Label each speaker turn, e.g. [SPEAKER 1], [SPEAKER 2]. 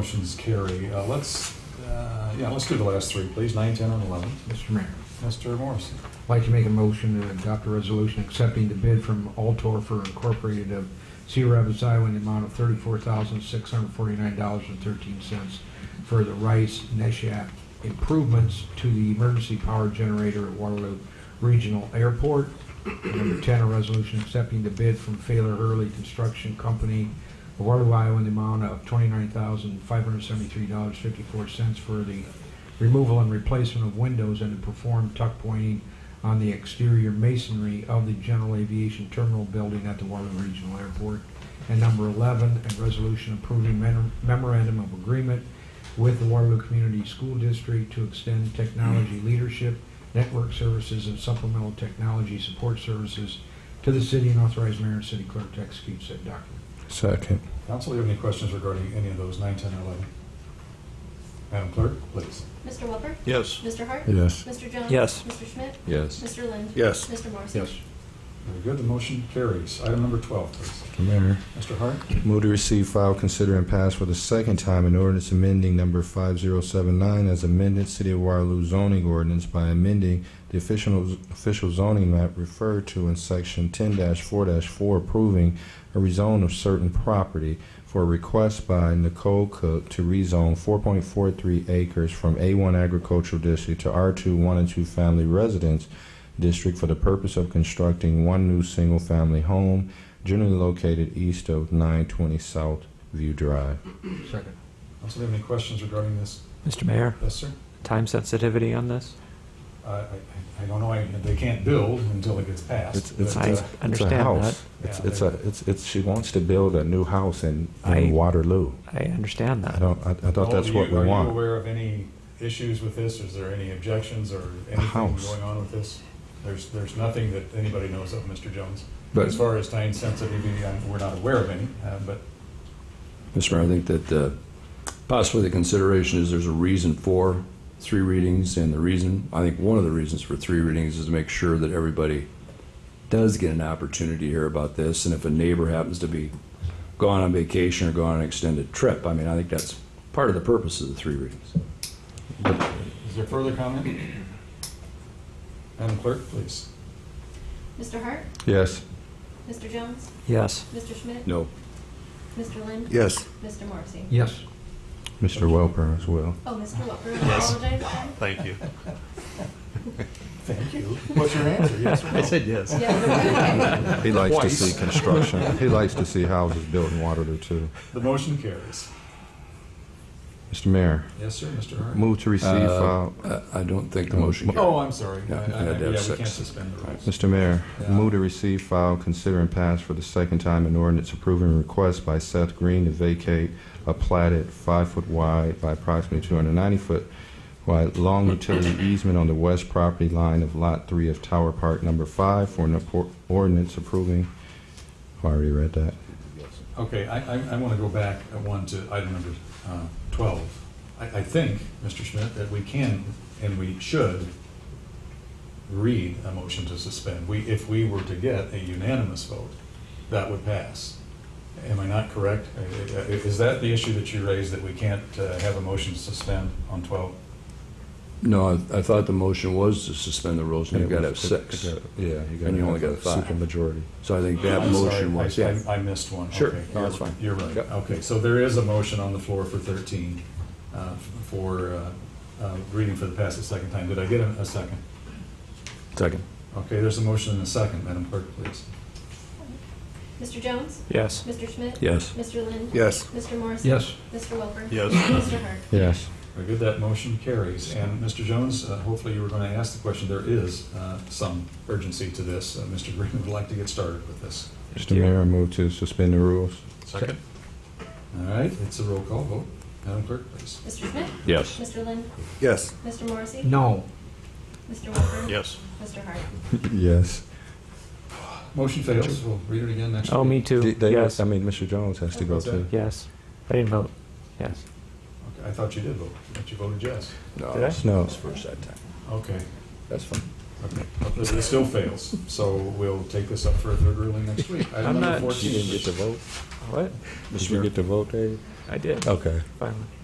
[SPEAKER 1] Motion's carry. Uh, Let's, uh, yeah, let's do the last three, please, nine, 10, and 11.
[SPEAKER 2] Mr. Mayor,
[SPEAKER 1] Mr. Morrison.
[SPEAKER 2] I'd like to make a motion to adopt a resolution accepting the bid from Altor for Incorporated of Sea Rapids, Iowa in the amount of thirty-four thousand, six hundred forty-nine dollars and thirteen cents for the Rice Neshat improvements to the emergency power generator at Waterloo Regional Airport. And Number ten, a resolution accepting the bid from Failer Hurley Construction Company of Waterloo, Iowa in the amount of twenty-nine thousand, five hundred seventy-three dollars, fifty-four cents for the removal and replacement of windows and to perform tuck pointing on the exterior masonry of the General Aviation Terminal Building at the Waterloo Regional Airport. And number 11, a resolution approving mem- memorandum of agreement with the Waterloo Community School District to extend technology leadership, network services, and supplemental technology support services to the city and authorize mayor and city clerk to execute said document.
[SPEAKER 3] Second.
[SPEAKER 1] Council, do you have any questions regarding any of those, nine, 10, and 11? Madam Clerk, please.
[SPEAKER 4] Mr. Welper?
[SPEAKER 5] Yes.
[SPEAKER 4] Mr. Hart?
[SPEAKER 3] Yes.
[SPEAKER 4] Mr. Jones?
[SPEAKER 5] Yes.
[SPEAKER 4] Mr. Schmidt?
[SPEAKER 3] Yes.
[SPEAKER 4] Mr. Lind?
[SPEAKER 3] Yes.
[SPEAKER 4] Mr. Morrison?
[SPEAKER 1] Very good, the motion carries. Item number 12, please.
[SPEAKER 3] Mr. Mayor,
[SPEAKER 1] Mr. Hart?
[SPEAKER 3] move to receive, file, consider, and pass for the second time an ordinance amending number 5079 as amended City of Waterloo zoning ordinance by amending the official, official zoning map referred to in section 10-4-4 approving a rezone of certain property for a request by Nicole Cook to rezone 4.43 acres from A1 agricultural district to R2 1 and 2 family residence district for the purpose of constructing one new single-family home generally located east of 920 South View Drive.
[SPEAKER 2] Second.
[SPEAKER 1] Council, do you have any questions regarding this?
[SPEAKER 5] Mr. Mayor,
[SPEAKER 1] Yes, sir?
[SPEAKER 5] time sensitivity on this?
[SPEAKER 1] I- I I don't know, I- they can't build until it gets passed.
[SPEAKER 3] It's, it's,
[SPEAKER 1] but,
[SPEAKER 5] I
[SPEAKER 3] it's
[SPEAKER 1] uh,
[SPEAKER 3] a- it's
[SPEAKER 5] understand
[SPEAKER 3] a
[SPEAKER 5] that.
[SPEAKER 3] house. It's, it's a it's, it's she wants to build a new house in, in
[SPEAKER 5] I-
[SPEAKER 3] Waterloo.
[SPEAKER 5] I understand
[SPEAKER 3] I
[SPEAKER 5] that.
[SPEAKER 3] don't I, I thought
[SPEAKER 1] Noel,
[SPEAKER 3] that's
[SPEAKER 1] do
[SPEAKER 3] what
[SPEAKER 1] you-
[SPEAKER 3] we
[SPEAKER 1] Are you
[SPEAKER 3] want.
[SPEAKER 1] aware of any issues with this? Is there any objections or anything
[SPEAKER 3] house.
[SPEAKER 1] going on with this? There's, there's nothing that anybody knows of, Mr. Jones.
[SPEAKER 6] But-
[SPEAKER 1] As far as time sensitivity, I'm- we're not aware of any, uh, but
[SPEAKER 6] Mr. Mayor, I think that uh, possibly the consideration is there's a reason for three readings, and the reason, I think one of the reasons for three readings is to make sure that everybody does get an opportunity to hear about this, and if a neighbor happens to be gone on vacation or gone on an extended trip, I mean, I think that's part of the purpose of the three readings.
[SPEAKER 1] is there further comment? Madam Clerk, please.
[SPEAKER 4] Mr. Hart?
[SPEAKER 3] Yes.
[SPEAKER 4] Mr. Jones?
[SPEAKER 5] Yes.
[SPEAKER 4] Mr. Schmidt?
[SPEAKER 6] No.
[SPEAKER 4] Mr. Lind?
[SPEAKER 3] Yes.
[SPEAKER 4] Mr. Morrissey?
[SPEAKER 2] Yes.
[SPEAKER 3] Mr. Welper as well.
[SPEAKER 4] Oh, Mr. Welper, I apologize.
[SPEAKER 5] Thank you.
[SPEAKER 1] Thank you. What's your answer, yes or no?
[SPEAKER 5] yes.
[SPEAKER 4] Yes.
[SPEAKER 3] He likes
[SPEAKER 1] Twice.
[SPEAKER 3] to see construction. he likes to see houses built in Waterloo too.
[SPEAKER 1] The motion carries.
[SPEAKER 3] Mr. Mayor,
[SPEAKER 1] Yes, sir, Mr. Hart?
[SPEAKER 3] move to receive,
[SPEAKER 6] Uh,
[SPEAKER 3] file.
[SPEAKER 6] I- I don't think the motion carries.
[SPEAKER 1] Oh, I'm sorry. I-
[SPEAKER 6] Yeah,
[SPEAKER 1] I-
[SPEAKER 6] and
[SPEAKER 1] Yeah,
[SPEAKER 6] I'd have
[SPEAKER 1] we
[SPEAKER 6] six.
[SPEAKER 1] can't suspend the rules.
[SPEAKER 3] Mr. Mayor,
[SPEAKER 1] Yeah.
[SPEAKER 3] move to receive, file, consider, and pass for the second time an ordinance approving a request by Seth Green to vacate a platted five-foot wide by approximately 290-foot wide long utility easement on the west property line of Lot 3 of Tower Park Number 5 for an appor- ordinance approving, I already read that.
[SPEAKER 1] Okay, I, I, I want to go back at one to item number uh, 12. I, I think, Mr. Schmidt, that we can and we should read a motion to suspend. We, if we were to get a unanimous vote, that would pass. Am I not correct? I- I- Is that the issue that you raised, that we can't uh, have a motion to suspend on 12?
[SPEAKER 6] No, I- I thought the motion was to suspend the rules, and you've got to have six.
[SPEAKER 3] Yeah.
[SPEAKER 6] And you only got five.
[SPEAKER 3] Supermajority.
[SPEAKER 6] So I think that
[SPEAKER 1] I'm sorry,
[SPEAKER 6] motion was,
[SPEAKER 1] I-
[SPEAKER 6] yeah.
[SPEAKER 1] I I missed one.
[SPEAKER 6] Sure.
[SPEAKER 1] Okay,
[SPEAKER 6] No, that's fine.
[SPEAKER 1] You're right.
[SPEAKER 6] Yep.
[SPEAKER 1] Okay, so there is a motion on the floor for 13, uh, for uh, uh, reading for the past a second time. Did I get a a second?
[SPEAKER 6] Second.
[SPEAKER 1] Okay, there's a motion and a second. Madam Clerk, please.
[SPEAKER 4] Mr. Jones?
[SPEAKER 5] Yes.
[SPEAKER 4] Mr. Schmidt?
[SPEAKER 6] Yes.
[SPEAKER 4] Mr. Lind?
[SPEAKER 3] Yes.
[SPEAKER 4] Mr. Morrissey?
[SPEAKER 2] Yes.
[SPEAKER 4] Mr. Welper?
[SPEAKER 5] Yes.
[SPEAKER 4] Mr. Hart?
[SPEAKER 3] Yes.
[SPEAKER 1] Very good, that motion carries. And Mr. Jones, uh, hopefully you were going to ask the question. There is uh, some urgency to this. Uh, Mr. Green would like to get started with this.
[SPEAKER 3] Mr. Mayor, move to suspend the rules.
[SPEAKER 2] Second.
[SPEAKER 1] All right, it's a roll call vote. Madam Clerk, please.
[SPEAKER 4] Mr. Schmidt?
[SPEAKER 6] Yes.
[SPEAKER 4] Mr. Lind?
[SPEAKER 3] Yes.
[SPEAKER 4] Mr. Morrissey?
[SPEAKER 2] No.
[SPEAKER 4] Mr. Welper?
[SPEAKER 5] Yes.
[SPEAKER 4] Mr. Hart?
[SPEAKER 3] Yes.
[SPEAKER 1] Motion fails. We'll read it again next week.
[SPEAKER 5] Oh, me too.
[SPEAKER 3] They- they-
[SPEAKER 5] Yes.
[SPEAKER 3] I mean, Mr. Jones has to go too.
[SPEAKER 5] Yes. I didn't vote. Yes.
[SPEAKER 1] Okay, I thought you did vote, but you voted yes.
[SPEAKER 6] No,
[SPEAKER 5] Did I?
[SPEAKER 6] it's-
[SPEAKER 3] No.
[SPEAKER 6] it's first that time.
[SPEAKER 1] Okay.
[SPEAKER 6] That's fine.
[SPEAKER 1] It it still fails, so we'll take this up for a third ruling next week. Item number
[SPEAKER 5] I'm not-
[SPEAKER 3] You didn't
[SPEAKER 1] 14.
[SPEAKER 3] get to vote?
[SPEAKER 5] What?
[SPEAKER 3] Did you
[SPEAKER 6] Mr. Mayor,
[SPEAKER 3] get to vote, Dave?
[SPEAKER 5] I did,
[SPEAKER 3] Okay.
[SPEAKER 5] finally.